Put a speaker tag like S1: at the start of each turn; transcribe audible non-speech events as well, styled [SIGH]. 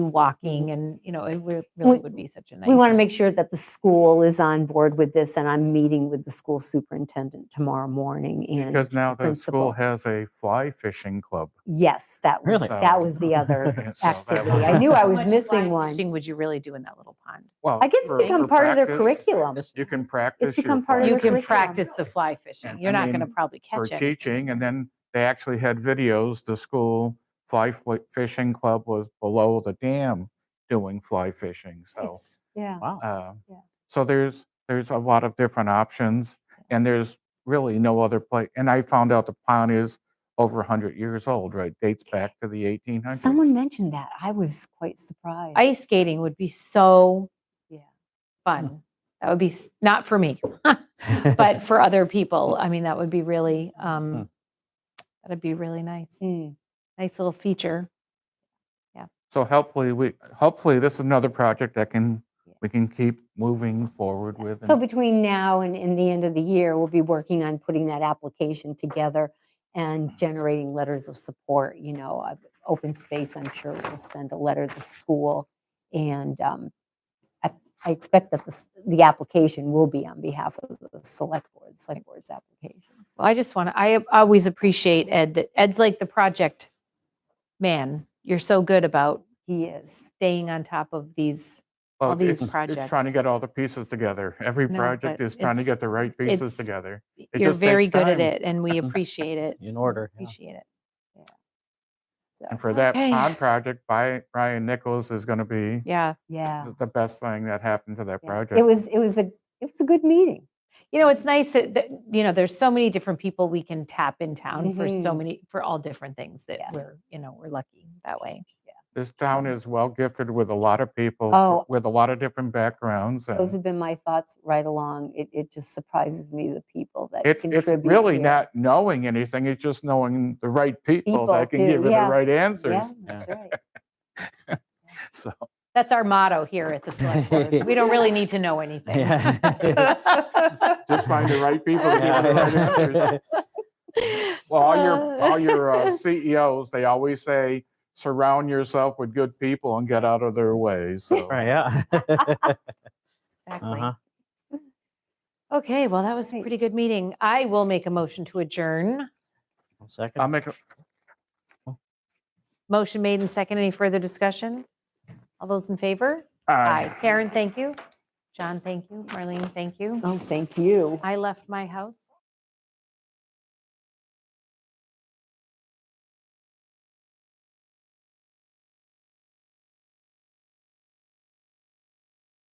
S1: walking and, you know, it re-
S2: We-
S1: really would be such a nice.
S2: We want to make sure that the school is on board with this, and I'm meeting with the school superintendent tomorrow morning. And
S3: Because now the
S2: principal.
S3: school has a fly fishing club.
S2: yes, that was,
S4: Really?
S2: that was
S3: [LAUGHS]
S2: the other
S3: Yeah, so that
S2: activity.
S3: was-
S2: I knew I
S3: [LAUGHS]
S1: How
S2: was
S1: much
S2: missing
S1: fly
S2: one.
S1: fishing Would you really do in that little pond?
S3: Well,
S2: I guess
S3: for-
S2: it's become
S3: for
S2: part of their
S3: practice,
S2: curriculum.
S3: You can practice. your
S2: become part of
S3: fly
S1: You
S2: their
S3: fishing
S1: can
S2: curriculum.
S1: practice the fly fishing.
S3: And-
S1: You're
S3: I
S1: not going to
S3: mean,
S1: probably
S3: For
S1: catch it.
S3: teaching, and then they actually had videos, the school fly fl- fishing club was below the dam doing fly fishing, so.
S1: Nice.
S2: Yeah.
S4: Wow.
S3: uh,
S2: Yeah.
S3: So there's, there's a lot of different options, and there's really no other place. And I found out the pond is over 100 years old, right? Dates back to the 1800s.
S2: Someone mentioned that. I was quite surprised.
S1: Ice skating would be so
S2: Yeah.
S3: Hmm.
S1: fun. That would be, s- not for me, [LAUGHS] but
S3: [LAUGHS]
S1: for other people. I mean, that would be really,
S3: Hmm.
S1: um, that'd be really nice.
S2: Mm.
S1: Nice little feature.
S3: So hopefully, we, hopefully this is another project that can,
S2: Yeah.
S3: we can keep moving forward with.
S2: So
S3: and-
S2: between now and, and the end of the year, we'll be working on putting that application together
S3: Mm.
S2: and generating letters of support, you know, uh, open space, I'm sure will send a letter to the school. And um, I, I expect that the, s- the application will be on behalf of the select board, select board's application.
S1: Well, I just want to, I always appreciate Ed, that Ed's like the project man. You're so good about
S2: He is.
S1: staying on top of these.
S3: Well,
S1: all these
S3: it's-
S1: projects.
S3: It's trying to get all the pieces together. Every
S1: No,
S3: project
S1: but
S3: is trying to
S1: it's-
S3: get the right pieces
S1: it's-
S3: together.
S1: You're
S3: just
S1: very
S3: takes
S1: good at
S3: time.
S1: it and
S3: [LAUGHS]
S1: we appreciate it.
S4: In order. yeah.
S1: Appreciate it.
S3: And for that
S1: Okay.
S3: pond project, Bi- Brian Nichols is going to be
S1: Yeah.
S2: Yeah.
S3: the- the best thing that happened to that
S2: yeah.
S3: project.
S2: It was, it was a, it was a good meeting.
S1: You know, it's nice that, that, you know, there's so many different people we can tap in town for so
S2: Mhm.
S1: many, for all different things that
S2: Yeah.
S1: we're, you know, we're lucky that way.
S3: This town is well gifted with a lot of people,
S2: Oh.
S3: fr- with a lot of different backgrounds.
S2: Those
S3: and
S2: have been my thoughts right along. It, it just surprises me, the people that
S3: It's, it's
S2: contribute.
S3: really
S2: here.
S3: not knowing anything, it's just knowing the right people
S2: People
S3: that can give
S2: too,
S3: you the
S2: yeah.
S3: right
S2: Yeah,
S3: answers.
S2: that's right.
S3: So,
S1: That's our motto here at the
S3: [LAUGHS]
S1: select board. We don't really need to know anything.
S4: Yeah.
S3: just find the right people to
S4: [LAUGHS]
S3: give you the [LAUGHS] right answers.
S4: Yeah.
S3: Well, all your,
S1: Uh,
S3: all your uh, CEOs, they always say, surround yourself with good people and get out of their way. So
S4: Right, yeah. [LAUGHS]
S1: Exactly.
S4: Uh-huh.
S1: [LAUGHS] Okay, well, that was a pretty
S2: Right.
S1: good meeting. I will make a motion to adjourn.
S4: One
S3: I'll
S4: Second.
S3: make, a-
S1: Motion made and second. Any further discussion? All those in favor?
S3: aye.
S1: Karen, thank you. John, thank you. Marlene, thank you.
S2: Oh, thank you.
S1: I left my house